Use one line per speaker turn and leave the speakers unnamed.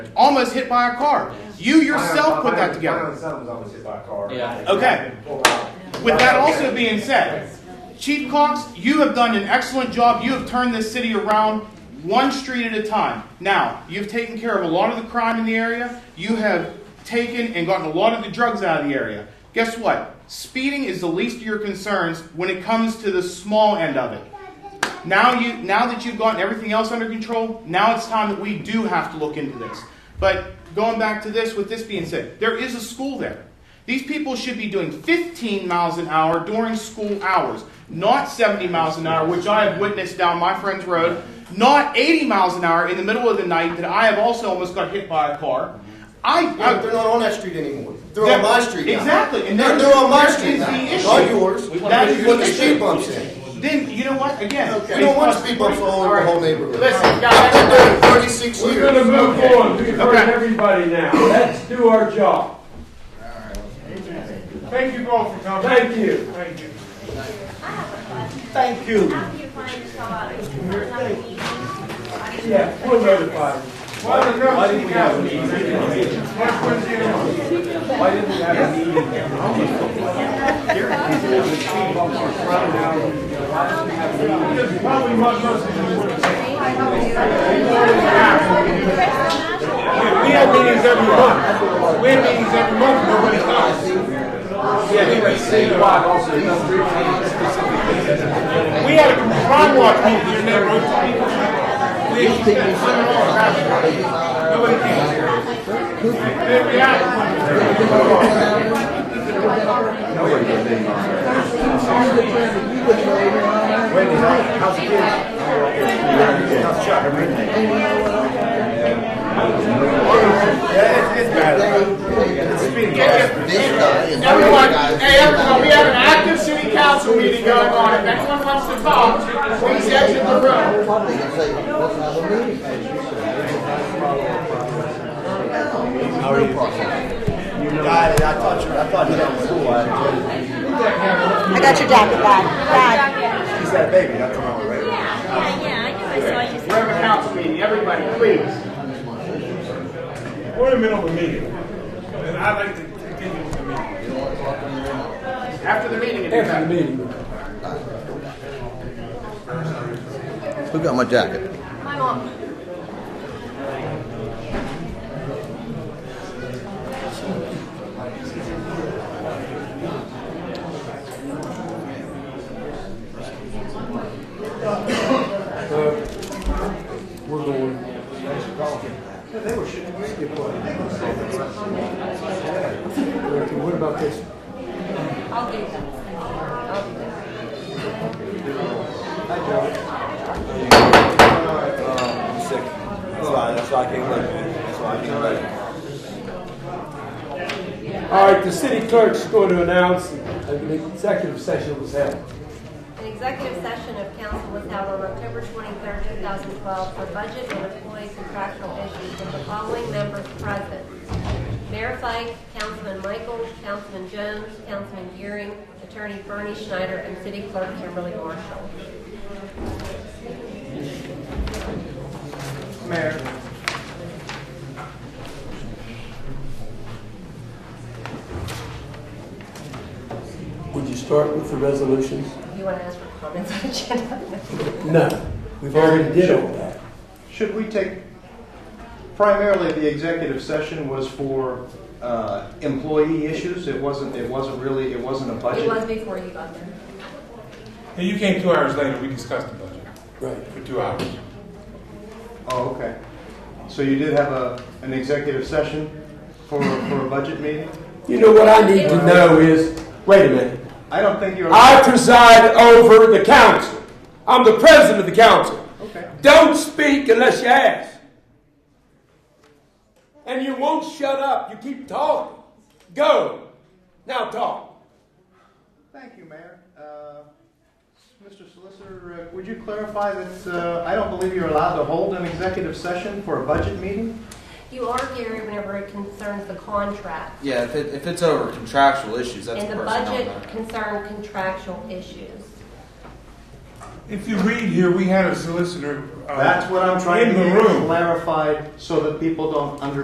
almost hit by a car. You yourself put that
My
together.
own son was almost hit by a car.
Yeah.
Okay.
Pulled out.
With that also being said, Chief Cox, you have done an excellent job. You have turned this city around one street at a time. Now, you've taken care of a lot of the crime in the area. You have taken and gotten a lot of the drugs out of the area. Guess what? Speeding is the least of your concerns when it comes to the small end of it. Now you now that you've gotten everything else under control, now it's time that we do have to look into this. But going back to this, with this being said, there is a school there. These people should be doing 15 miles an hour during school hours, not 70 miles an hour, which I have witnessed down my friend's road, not 80 miles an hour in the middle of the night that I have also almost got hit by a car. I,
Yeah, but
I
they're not on that street anymore. They're on my street now.
Exactly, and
They're,
that-
they're on my
that
street
is
now,
the issue.
not yours.
We
That is
You put the
the
speed
issue.
bumps in.
Then you know what? Again,
We don't want speed bumps all over the whole neighborhood. I've been doing it thirty-six years.
We're gonna move
Okay.
on, we've heard
Okay.
everybody now, let's do our job.
Thank you both for coming.
Thank you.
Thank you.
Thank you.
After you find this out, it's not a meeting.
Yeah, we'll notify them.
Well, there's no
Why didn't we have a
meeting.
meeting? Why
Next one's the other one.
didn't we have a meeting?
It's Probably much less than you would. We have meetings every month. We have meetings every month, nobody comes.
Yeah, we were saying why also, it doesn't really
We had a crime watch meeting here in that room. We had people sitting on the couch. Nobody came. Then we had one.
Yeah, it's, it's bad. It's speeding.
This guy is-
Everyone, hey, everyone, we have an active city council meeting going on. If anyone wants to talk, please exit the room.
Got it. I thought you, I thought you were cool. I-
I got your jacket back. Dad.
She said, baby, that's what I was ready.
Yeah, yeah, I knew I saw you.
We're having a council meeting, everybody, please. We're in the middle of a meeting, and I'd like to continue with the meeting. After the meeting, if you have.
Who got my jacket?
My mom.
I'm sick. That's why, that's why I came late, man. That's why I came late.
All right, the city clerk's going to announce that an executive session was held.
An executive session of council was held on October 23rd, 2012 for budget and employee contractual issues with the following members present. Mayor Fike, Councilman Michael, Councilman Jones, Councilman Gearing, Attorney Bernie Schneider, and City Clerk Kimberly Marshall.
Mayor.
Would you start with the resolutions?
You want to ask for comments on agenda?
No, we've already did all that.
Should we take, primarily the executive session was for uh, employee issues? It wasn't, it wasn't really, it wasn't a budget?
It was before you got there.
Hey, you came two hours later, we discussed the budget
Right.
for two hours.
Oh, okay. So you did have a, an executive session for, for a budget meeting?
You know what I need to know is, wait a minute,
I don't think you're.
I preside over the council. I'm the president of the council.
Okay.
Don't speak unless you ask. And you won't shut up. You keep talking. Go. Now talk.
Thank you, Mayor. Uh, Mr. Solicitor, uh, would you clarify that, uh, I don't believe you're allowed to hold an executive session for a budget meeting?
You are, Gary, whenever it concerns the contract.
Yeah, if, it, if it's over contractual issues, that's
And the
personnel
budget
matter.
concerned contractual issues.
If you read here, we had a solicitor. uh,
That's what I'm trying
in
to
the
get
room.
clarified so that people don't under,